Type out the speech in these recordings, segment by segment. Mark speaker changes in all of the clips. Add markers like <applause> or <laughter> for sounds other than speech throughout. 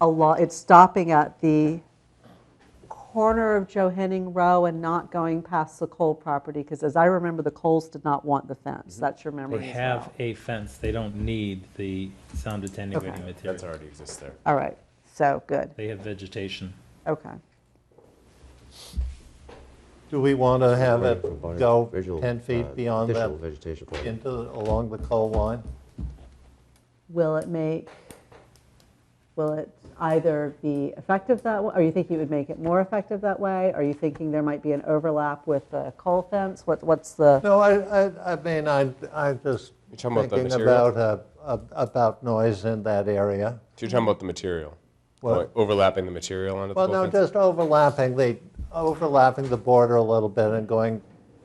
Speaker 1: along, it's stopping at the corner of Johanning Row and not going past the Cole property, because as I remember, the Coles did not want the fence. That's your memory
Speaker 2: They
Speaker 1: as
Speaker 2: have
Speaker 1: well.
Speaker 2: a fence, they don't need the sound attenuating
Speaker 1: Okay.
Speaker 2: material.
Speaker 3: That's already exists there.
Speaker 1: All right, so, good,
Speaker 2: They have vegetation.
Speaker 1: okay.
Speaker 4: Do we want to have it
Speaker 5: Right, but
Speaker 4: go
Speaker 5: visual,
Speaker 4: 10
Speaker 5: uh,
Speaker 4: feet beyond that,
Speaker 5: Official vegetation plan.
Speaker 4: into, along the coal line?
Speaker 1: Will it make, will it either be effective that way? Are you thinking it would make it more effective that way? Are you thinking there might be an overlap with the coal fence? What, what's the,
Speaker 4: No, I, I, I mean, I, I'm just
Speaker 3: You're talking about the
Speaker 4: thinking
Speaker 3: material?
Speaker 4: about, uh, ab- about noise in that area.
Speaker 3: So you're talking about the material,
Speaker 4: What?
Speaker 3: Like overlapping the material onto
Speaker 4: Well,
Speaker 3: the pole
Speaker 4: no,
Speaker 3: fence?
Speaker 4: just overlapping the, overlapping the border a little bit and going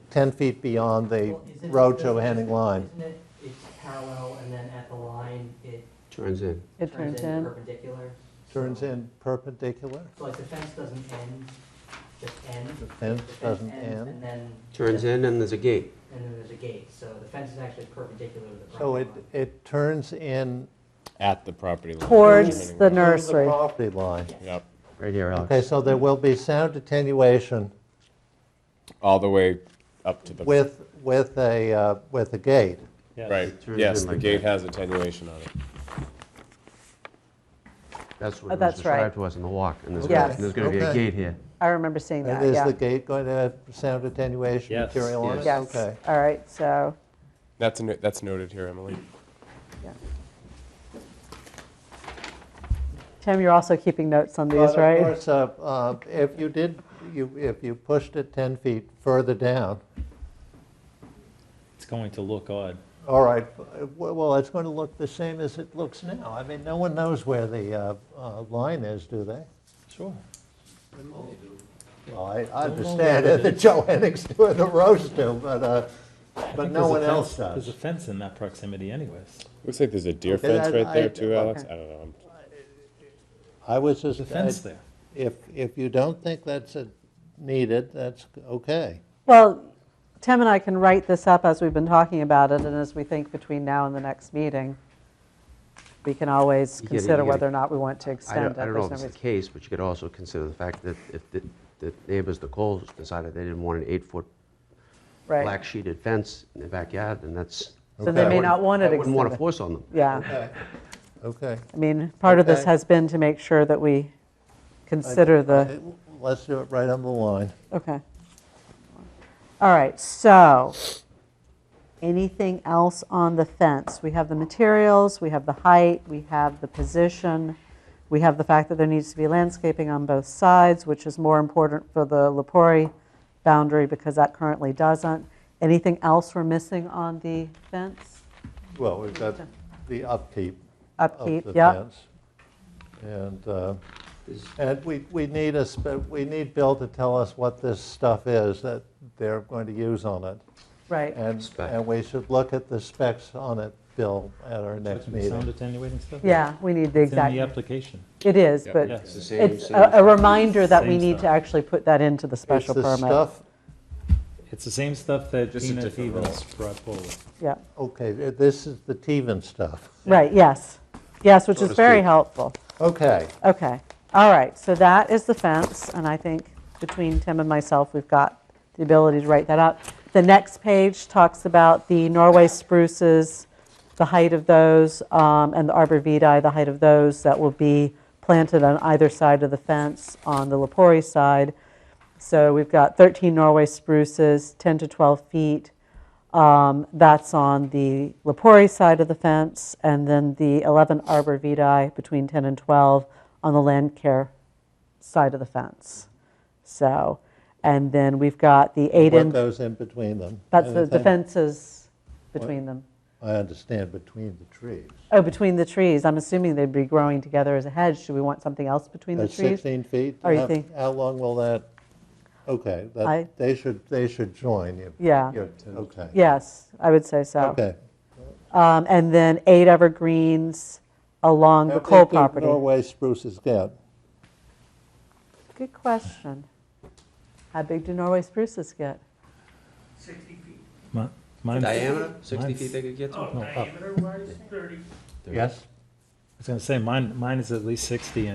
Speaker 4: 10 feet beyond the
Speaker 6: Well, isn't it
Speaker 4: road
Speaker 6: the-
Speaker 4: to Henning line.
Speaker 6: Isn't it, it's parallel, and then at the line, it
Speaker 5: Turns in.
Speaker 1: it turns
Speaker 6: turns in
Speaker 1: in?
Speaker 6: perpendicular?
Speaker 4: Turns
Speaker 6: So-
Speaker 4: in perpendicular?
Speaker 6: So like the fence doesn't end, just end?
Speaker 4: The fence doesn't
Speaker 6: ends,
Speaker 4: end.
Speaker 6: And then.
Speaker 5: Turns in and there's a gate.
Speaker 6: And then there's a gate, so the fence is actually perpendicular to the property
Speaker 4: So it,
Speaker 6: line.
Speaker 4: it turns in
Speaker 3: At the property line.
Speaker 1: Towards the
Speaker 4: through the
Speaker 1: nursery.
Speaker 4: property line.
Speaker 3: Yep,
Speaker 5: Right here,
Speaker 4: Okay,
Speaker 5: Alex.
Speaker 4: so there will be sound attenuation
Speaker 3: all the way up to the.
Speaker 4: with, with a, uh, with a gate.
Speaker 2: Yes.
Speaker 3: Right,
Speaker 5: Turns
Speaker 3: yes,
Speaker 5: in
Speaker 3: the
Speaker 5: like
Speaker 3: gate
Speaker 5: that.
Speaker 3: has attenuation on it.
Speaker 5: That's
Speaker 1: Oh,
Speaker 5: what was
Speaker 1: that's right.
Speaker 5: described to us in the walk. And there's
Speaker 1: Yes.
Speaker 5: gonna- there's going to be a
Speaker 4: Okay.
Speaker 5: gate here.
Speaker 1: I remember seeing that,
Speaker 4: And
Speaker 1: yeah.
Speaker 4: is the gate going to have sound attenuation
Speaker 2: Yes.
Speaker 4: material on it?
Speaker 1: Yes,
Speaker 4: Okay.
Speaker 1: all right, so,
Speaker 3: That's, a no- that's noted here, Emily.
Speaker 1: yeah. Tim, you're also keeping notes on these,
Speaker 4: But
Speaker 1: right?
Speaker 4: Of course, uh, uh, if you did, you, if you pushed it 10 feet further down,
Speaker 2: It's going to look odd.
Speaker 4: all right, uh, well, it's going to look the same as it looks now. I mean, no one knows where the uh, uh, line is, do they?
Speaker 2: Sure.
Speaker 4: Well, I I
Speaker 2: Don't know
Speaker 4: understand
Speaker 2: where it
Speaker 4: that
Speaker 2: is.
Speaker 4: <laughs> Joe Henning's doing the roast too, but, uh, but no one else
Speaker 2: There's a
Speaker 4: does.
Speaker 2: fence in that proximity anyways.
Speaker 3: Looks like there's a deer
Speaker 4: Okay,
Speaker 3: fence
Speaker 4: I-
Speaker 3: right there
Speaker 4: I-
Speaker 3: too, Alex. I don't know. I'm-
Speaker 4: I was just.
Speaker 2: There's a fence there.
Speaker 4: If, if you don't think that's uh, needed, that's okay.
Speaker 1: Well, Tim and I can write this up as we've been talking about it, and as we think between now and the next meeting, we can always
Speaker 5: You gotta- you
Speaker 1: consider
Speaker 5: gotta-
Speaker 1: whether or not we want to
Speaker 5: I
Speaker 1: extend it.
Speaker 5: don't, I don't know
Speaker 1: There's
Speaker 5: if
Speaker 1: no
Speaker 5: it's the
Speaker 1: reason-
Speaker 5: case, but you could also consider the fact that if the, the neighbors, the Coles, decided they didn't want an eight-foot black
Speaker 1: Right,
Speaker 5: sheeted fence in their backyard, then that's.
Speaker 1: so they
Speaker 4: Okay.
Speaker 1: may not want it
Speaker 5: I wouldn't want to
Speaker 1: extended.
Speaker 5: force on them.
Speaker 1: Yeah,
Speaker 4: Okay.
Speaker 1: I mean, part of this
Speaker 4: Okay.
Speaker 1: has been to make sure that we consider the,
Speaker 4: Let's do it right on the line.
Speaker 1: okay. All right, so, anything else on the fence? We have the materials, we have the height, we have the position, we have the fact that there needs to be landscaping on both sides, which is more important for the Lepori boundary because that currently doesn't. Anything else we're missing on the fence?
Speaker 4: Well, we've got the upkeep of
Speaker 1: Upkeep,
Speaker 4: the
Speaker 1: yeah,
Speaker 4: fence. And, uh,
Speaker 5: Is-
Speaker 4: and we, we need a, spe- we need Bill to tell us what this stuff is that they're going to use on it.
Speaker 1: right.
Speaker 4: And,
Speaker 5: Spec.
Speaker 4: and we should look at the specs on it, Bill, at our next
Speaker 2: Some Sound
Speaker 4: meeting.
Speaker 2: attenuating stuff?
Speaker 1: Yeah, we need the
Speaker 2: It's in the
Speaker 1: exact,
Speaker 2: application.
Speaker 1: it is,
Speaker 3: Yeah.
Speaker 1: but
Speaker 2: Yes.
Speaker 5: same-
Speaker 1: it's
Speaker 5: same-
Speaker 1: a a reminder that we
Speaker 2: Same
Speaker 1: need to
Speaker 2: stuff.
Speaker 1: actually put that into the special
Speaker 4: It's the
Speaker 1: permit.
Speaker 4: stuff,
Speaker 2: It's the same stuff that
Speaker 3: Just a
Speaker 2: Tina
Speaker 3: different roll.
Speaker 2: Stevens brought forward.
Speaker 1: Yeah,
Speaker 4: okay, th- this is the Teven stuff.
Speaker 1: right, yes, yes, which
Speaker 5: So
Speaker 1: is
Speaker 5: to
Speaker 1: very
Speaker 5: speak.
Speaker 1: helpful.
Speaker 4: Okay,
Speaker 1: Okay, all right, so that is the fence, and I think between Tim and myself, we've got the ability to write that out. The next page talks about the Norway spruces, the height of those, um, and the arborvitae, the height of those that will be planted on either side of the fence on the Lepori side. So we've got 13 Norway spruces, 10 to 12 feet. Um, That's on the Lepori side of the fence, and then the 11 arborvitae between 10 and 12 on the land care side of the fence. So, and then we've got the eight
Speaker 4: what
Speaker 1: in,
Speaker 4: goes in between them?
Speaker 1: that's the- the
Speaker 4: Anything?
Speaker 1: fences between them.
Speaker 4: I understand between the trees.
Speaker 1: Oh, between the trees, I'm assuming they'd be growing together as a hedge. Do we want something else between the
Speaker 4: That's
Speaker 1: trees?
Speaker 4: 16 feet?
Speaker 1: Are you
Speaker 4: How-
Speaker 1: think-
Speaker 4: How long will that, okay, that-
Speaker 1: I-
Speaker 4: they should, they should join. you-
Speaker 1: Yeah.
Speaker 4: you're- Okay.
Speaker 1: Yes, I would say so.
Speaker 4: Okay.
Speaker 1: Um, And then eight evergreens along
Speaker 4: How
Speaker 1: the
Speaker 4: big
Speaker 1: coal
Speaker 4: do
Speaker 1: property.
Speaker 4: Norway spruces get?
Speaker 1: Good question. How big do Norway spruces get?
Speaker 2: Mi- mine's-
Speaker 5: Diameter, 60 feet
Speaker 2: mine's-
Speaker 5: they could get to?
Speaker 2: No, up. I
Speaker 5: They're-
Speaker 4: Yes?
Speaker 2: was gonna say, mine, mine is at least 60